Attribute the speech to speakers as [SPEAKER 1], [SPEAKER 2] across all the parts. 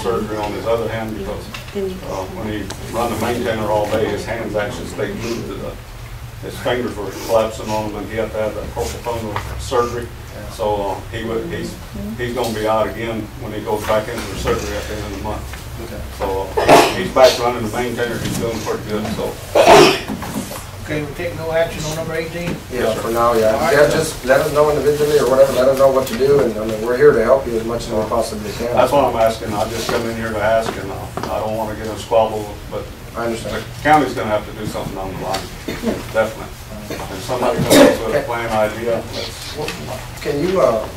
[SPEAKER 1] surgery on his other hand because uh, when he run the maintainer all day, his hands actually stayed glued to the, his fingers were collapsing on him and he had to have that propofol surgery. So uh, he would, he's, he's gonna be out again when he goes back into the surgery at the end of the month.
[SPEAKER 2] Okay.
[SPEAKER 1] So uh, he's back running the maintainer, he's doing pretty good, so.
[SPEAKER 2] Okay, we take no action on number eighteen?
[SPEAKER 3] Yeah, for now, yeah. Yeah, just let us know individually or whatever, let us know what to do, and, I mean, we're here to help you as much as we possibly can.
[SPEAKER 1] That's what I'm asking, I just come in here to ask and uh, I don't wanna get in a squabble, but
[SPEAKER 3] I
[SPEAKER 1] the
[SPEAKER 3] understand.
[SPEAKER 1] county's gonna have to do something on the line, definitely. If somebody comes up with a plan idea, let's,
[SPEAKER 3] Can you, uh,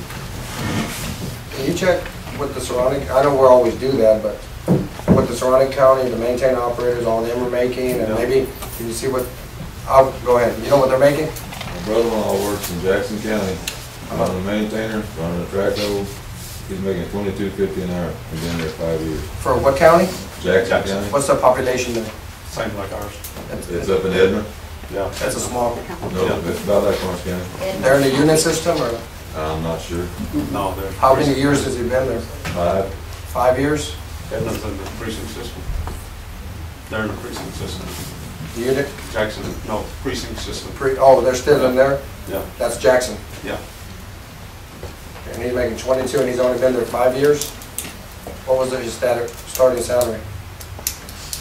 [SPEAKER 3] can you check with the surrounding, I know we always do that, but with the surrounding county, the maintain operators, all them are making, and
[SPEAKER 1] Yeah.
[SPEAKER 3] maybe, can you see what, I'll, go ahead, you know what they're making?
[SPEAKER 4] My brother-in-law works in Jackson County, running a maintainer, running a track hole. He's making twenty-two fifty an hour, he's been there five years.
[SPEAKER 3] For what county?
[SPEAKER 4] Jackson
[SPEAKER 1] Jackson.
[SPEAKER 4] County,
[SPEAKER 3] What's the population there?
[SPEAKER 1] same like ours,
[SPEAKER 4] it's up in Edna,
[SPEAKER 1] yeah.
[SPEAKER 3] That's a small,
[SPEAKER 4] no, it's about like Orange County,
[SPEAKER 3] they're in the unit system, or
[SPEAKER 4] I'm not sure,
[SPEAKER 1] No, they're.
[SPEAKER 3] how many years has he been there?
[SPEAKER 4] five,
[SPEAKER 3] Five years?
[SPEAKER 1] Edna's in the precinct system. They're in the precinct system.
[SPEAKER 3] The Unit,
[SPEAKER 1] Jackson, no, precinct system.
[SPEAKER 3] pre, oh, they're still in there?
[SPEAKER 1] Yeah,
[SPEAKER 3] That's Jackson.
[SPEAKER 1] yeah.
[SPEAKER 3] And he's making twenty-two, and he's only been there five years? What was his stat- starting salary?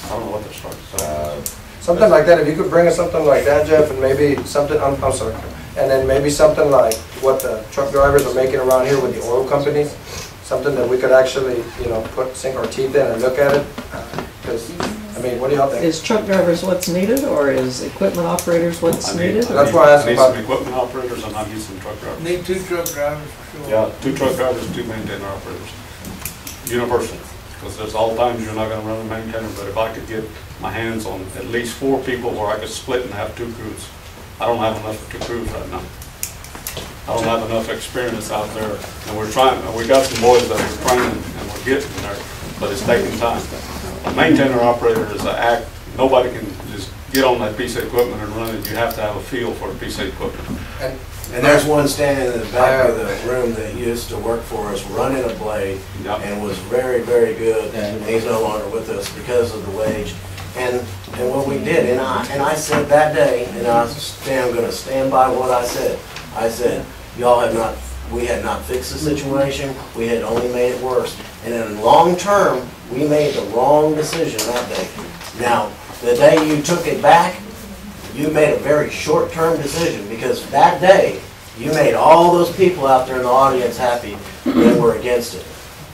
[SPEAKER 1] I don't know what they're starting, so.
[SPEAKER 4] uh,
[SPEAKER 3] Something like that, if you could bring us something like that, Jeff, and maybe something, I'm, I'm sorry, and then maybe something like what the truck drivers are making around here with the oil companies, something that we could actually, you know, put, sink our teeth in and look at it, because, I mean, what do y'all think?
[SPEAKER 5] Is truck drivers what's needed, or is equipment operators what's
[SPEAKER 1] I need-
[SPEAKER 5] needed?
[SPEAKER 3] That's why I asked
[SPEAKER 1] need
[SPEAKER 3] about-
[SPEAKER 1] some equipment operators and I need some truck drivers.
[SPEAKER 2] Need two truck drivers for sure.
[SPEAKER 1] Yeah, two truck drivers, two maintainer operators. Universal, because there's all times you're not gonna run a maintainer, but if I could get my hands on at least four people where I could split and have two crews. I don't have enough for two crews right now. I don't have enough experience out there, and we're trying, and we got some boys that we're training and we're getting there, but it's taking time. A maintainer operator is an act, nobody can just get on that piece of equipment and run it, you have to have a feel for a piece of equipment.
[SPEAKER 3] And
[SPEAKER 6] And there's one standing in the back of the room that used to work for us, running a blade,
[SPEAKER 1] Yeah.
[SPEAKER 6] and was very, very good, and he's no longer with us because of the wage. And, and what we did, and I, and I said that day, and I stand, gonna stand by what I said. I said, y'all have not, we had not fixed the situation, we had only made it worse. And in the long term, we made the wrong decision that day. Now, the day you took it back, you made a very short-term decision, because that day, you made all those people out there in the audience happy that were against it.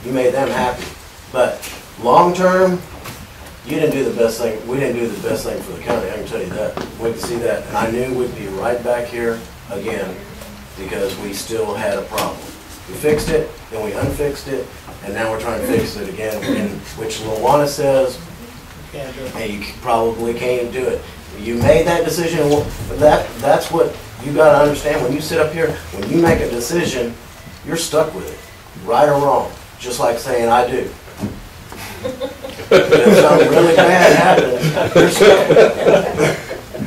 [SPEAKER 6] You made them happy. But long-term, you didn't do the best thing, we didn't do the best thing for the county, I can tell you that. We can see that, and I knew we'd be right back here again, because we still had a problem. We fixed it, then we unfixed it, and now we're trying to fix it again, and- which Luana says,
[SPEAKER 2] Can't do it.
[SPEAKER 6] and you probably can't do it. You made that decision, well, that, that's what you gotta understand, when you sit up here, when you make a decision, you're stuck with it, right or wrong, just like saying, I do. If something really bad happens, you're stuck with it.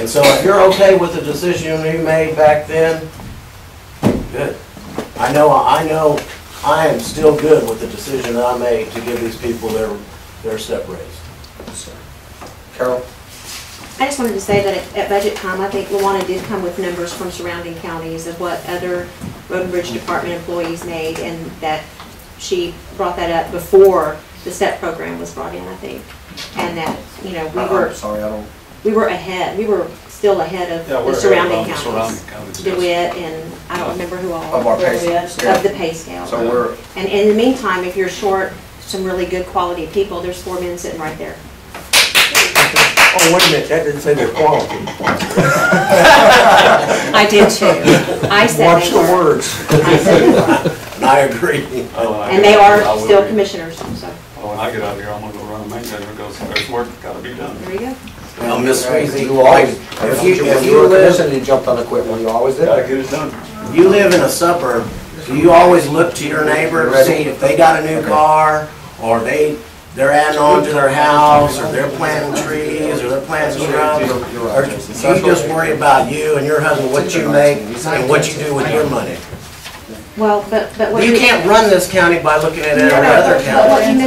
[SPEAKER 6] And so if you're okay with the decision you made back then, good. I know, I know, I am still good with the decision that I made to give these people their, their step raise.
[SPEAKER 3] Carol,
[SPEAKER 7] I just wanted to say that at- at budget time, I think Luana did come with numbers from surrounding counties of what other road and bridge department employees made, and that she brought that up before the STEP program was brought in, I think. And that, you know, we
[SPEAKER 3] I'm
[SPEAKER 7] were,
[SPEAKER 3] sorry, I don't,
[SPEAKER 7] we were ahead, we were still ahead of
[SPEAKER 1] Yeah,
[SPEAKER 7] the
[SPEAKER 1] we're
[SPEAKER 7] surrounding
[SPEAKER 1] around the
[SPEAKER 7] counties.
[SPEAKER 1] surrounding counties, yes.
[SPEAKER 7] DeWitt and, I don't remember who all.
[SPEAKER 3] Of our pay
[SPEAKER 7] DeWitt,
[SPEAKER 3] scale.
[SPEAKER 7] Of the pay scale.
[SPEAKER 3] so we're,
[SPEAKER 7] And in the meantime, if you're short some really good quality people, there's four men sitting right there.
[SPEAKER 3] oh, wait a minute, that didn't say the quality.
[SPEAKER 7] I did too. I said
[SPEAKER 3] Watch
[SPEAKER 7] they
[SPEAKER 3] the
[SPEAKER 7] were.
[SPEAKER 3] words.
[SPEAKER 7] I said they were.
[SPEAKER 6] And I agree.
[SPEAKER 1] Oh, I
[SPEAKER 7] And they
[SPEAKER 1] get- I
[SPEAKER 7] are
[SPEAKER 1] will
[SPEAKER 7] still
[SPEAKER 1] be-
[SPEAKER 7] commissioners, so
[SPEAKER 1] Well, When I get out of here, I'm gonna go run a maintainer because there's work gotta be done.
[SPEAKER 7] there you go.
[SPEAKER 6] Now, Miss Swayze,
[SPEAKER 3] You always,
[SPEAKER 6] if you,
[SPEAKER 3] when
[SPEAKER 6] if
[SPEAKER 3] you were
[SPEAKER 6] you
[SPEAKER 3] a
[SPEAKER 6] live,
[SPEAKER 3] commissioner, you jumped on equipment, you always did
[SPEAKER 1] Gotta
[SPEAKER 3] that.
[SPEAKER 1] get it done.
[SPEAKER 6] you live in a suburb, do you always look to your neighbor to see if they got a new car, or they, they're adding on to their house, or they're planting trees, or they're planting shrubs?
[SPEAKER 3] You're-
[SPEAKER 6] or-
[SPEAKER 3] you're
[SPEAKER 6] or
[SPEAKER 3] right.
[SPEAKER 6] You just worry about you and your husband, what you make, and what you do with your money.
[SPEAKER 7] Well, but, but what
[SPEAKER 6] You can't run this county by looking at
[SPEAKER 7] No, no,
[SPEAKER 6] every other
[SPEAKER 7] but- but what
[SPEAKER 6] county.
[SPEAKER 7] you